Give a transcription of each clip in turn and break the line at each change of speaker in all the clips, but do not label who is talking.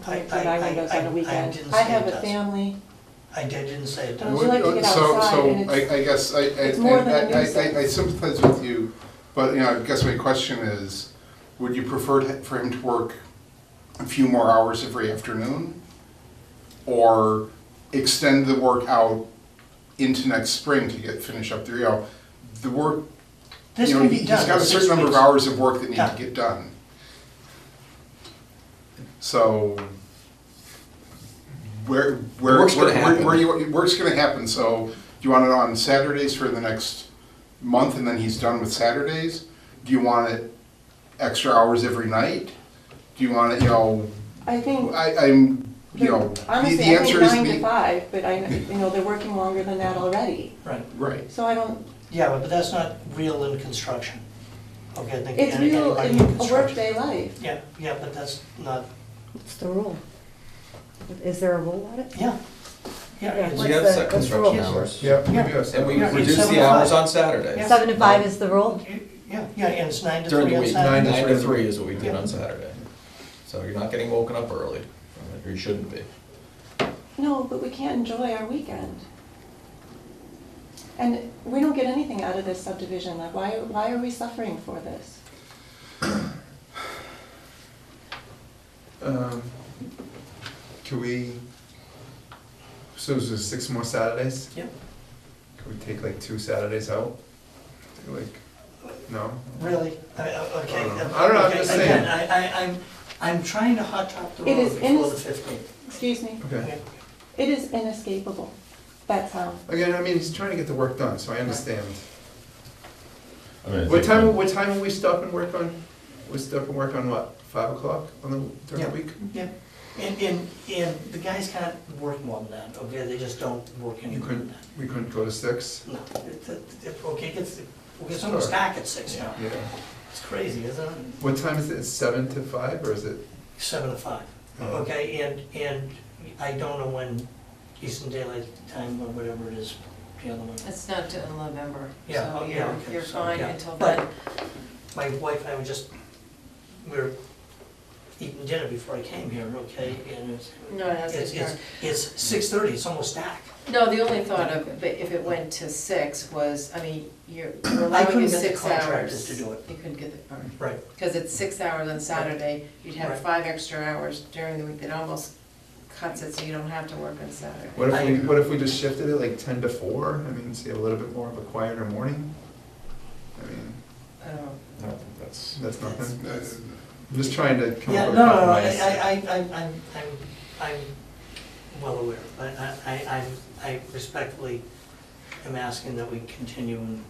putting
I- I-
my windows
I-
on a
I- I
weekend.
didn't
I
say
have
it
a
doesn't.
family,
I did- didn't say it
Would
does.
you like to get
So-
outside
so
and it's-
I, I guess, I, I,
it's more than a
I- I-
nuisance.
I, I sympathize with you, but, you know, I guess my question is, would you prefer to- for him to work a few more hours every afternoon? Or extend the work out into next spring to get, finish up the, you know, the work,
This
you know,
can be
he-
done.
He's got a
in
certain
six
number of
weeks.
hours of work that need to
Yeah.
get done. So, where, where,
work's gonna
where, where-
happen.
where you, work's gonna happen, so, do you want it on Saturdays for the next month and then he's done with Saturdays? Do you want it extra hours every night? Do you want it, you know,
I think,
I, I'm, you know, the- the
honestly, I think
answer is
nine to
the,
five, but I, you know, they're working longer than that already.
Right,
right.
So I don't,
yeah, but but that's not real in construction. Okay, I think
it's
any-
real
anybody
in
in
a
construction.
workday life.
Yeah, yeah, but that's not,
What's the rule? Is there a rule on it?
yeah, yeah.
We
What's
it's-
have
the-
set
what's the
construction
rule?
hours.
Yeah, we
Yeah.
do have
And we
seven.
Yeah, it's
reduce
seven
the
to
hours
five.
on Saturdays.
Seven to
Um,
five is the rule?
Yeah, yeah, and it's nine to
During
three
the
on
week,
Saturday.
Nine to
nine
three.
to three is what we did
Yeah.
on Saturday. So you're not getting woken up early, or you shouldn't be.
No, but we can't enjoy our weekend. And we don't get anything out of this subdivision, like, why, why are we suffering for this?
Um, Can we, so is there six more Saturdays?
Yeah,
Can we take like two Saturdays out? Do, Like, no?
really, I- I- okay.
I don't know.
uh,
I don't know, I'm
okay,
just
Again,
saying.
I, I, I'm, I'm trying to hot top the
It
road
is
before the
innocent.
fifteenth.
Excuse me,
Okay.
it is inescapable, that's how.
Again, I mean, he's trying to get the work done, so I understand.
I mean, I
What
think
time,
when-
what time will we stop and work on, we stop and work on what, five o'clock on the, during
Yeah.
the week?
Yeah, and, and, and the guys can't work more than that, okay, they just don't work any
You
more than
couldn't,
that.
we couldn't go to six?
No, it's, it's, it- okay, it's, okay, it's almost dark at six now,
Yeah.
it's crazy, isn't it?
What time is it, It's seven to five, or is it?
Seven to five,
Oh.
okay, and, and I don't know when Eastern Daylight Time or whatever it is, the other one.
It's not till November,
Yeah, oh,
so
yeah,
you're,
okay,
you're
so,
fine
yeah.
until
But-
then.
My wife and I were just, we were eating dinner before I came here, okay, and it's,
No, it
it's,
hasn't
it's,
started.
it's six thirty, it's almost dark.
No, the only thought of, it, if it went to six was, I mean, you're you're
I
allowing
couldn't
you
get the
six
contractors
hours.
to do it.
You couldn't get the,
Right.
because it's six hours on Saturday, you'd have
Right.
five extra hours during the week, that almost cuts it so you don't have to work on Saturday.
What
I-
if we, what if we just shifted it like ten to four? I mean, so you have a little bit more of a quieter morning? I mean,
I don't know.
I don't think that's,
that's nothing.
Uh,
I'm just trying to come
Yeah,
up
no,
with
no,
a
no, I,
compromise.
I, I, I'm, I'm, I'm well aware, but I, I, I'm- I respectfully am asking that we continue and,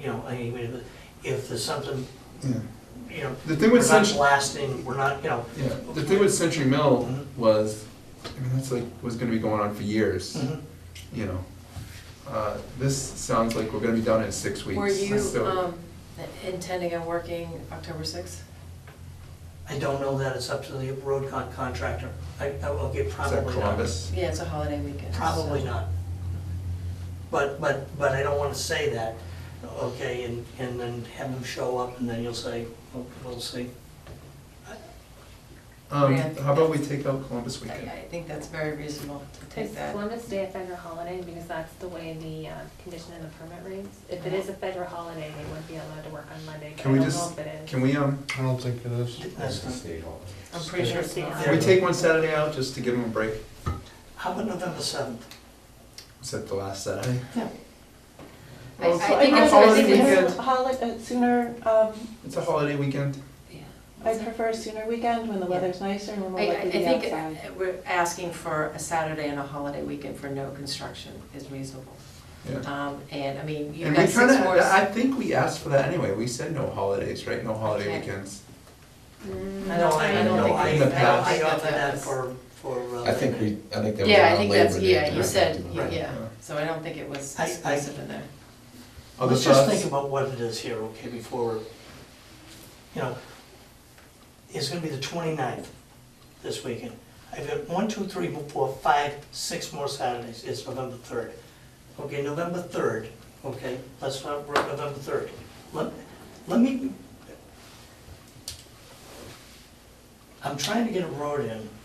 you know, I mean, if- if there's something,
Yeah.
you know,
The thing
we're
with
not
Century,
blasting, we're not, you know,
yeah, the thing with Century Mill
Mhm.
was, I mean, that's like, was gonna be going on for years,
Mm-hmm.
mhm.
you know? Uh, this sounds like we're gonna be done in six weeks.
Were you,
so-
um, intending on working October sixth?
I don't know that, it's up to the road con- contractor. I, I- okay,
Is
probably
that
not.
Columbus?
Yeah, it's a holiday weekend. so-
Probably not. But, but, but I don't wanna say that, okay, and, and then have them show up and then you'll say, "Oh, we'll see.
Um,
Yeah.
how about we take out Columbus
I,
weekend?
I think that's very reasonable to
Is
take that.
Columbus Day a federal holiday, because that's the way the uh, condition in the permit reads? If it is a federal holiday, they would be allowed to work on Monday, but
Uh-huh.
I
Can we
don't know
just-
if it is.
Can we, um,
I don't think it is.
That's not-
I'm pretty sure it's not.
Yeah.
can we take one Saturday out just to give them a break?
How about November seventh?
Is that the last Saturday?
Yeah.
I- I
So
think
I
it's-
prefer
I think
sooner
it's-
holi- uh, Sooner, um,
It's a holiday weekend.
Yeah.
I prefer sooner weekend when the weather's nicer and we're more
I, I
likely to be
think
outside.
we're asking for a Saturday and a holiday weekend for no construction is reasonable.
Yeah.
Um, and, I mean, you've
And we
got
kind
six
of,
more.
I think we asked for that anyway. We said no holidays, right? No holiday
Okay.
weekends.
I don't, Mm. I don't
know,
think.
I,
In
we-
the
I
past.
I
don't
offered
think
that
was-
for, for. uh,
I think we, I think that was
Yeah, I
on
think
Labor
that's,
Day.
yeah, you said, you-
Right.
yeah, so I don't think it was
I- I-
explicit in there.
Other
Let's just
thoughts?
think about what it is here, okay, before, you know, it's gonna be the 29th this weekend. I've got one, two, three, four, five, six more Saturdays, it's November third. Okay, November third, okay, let's not, work November third. Let, let me, I'm trying to get a road in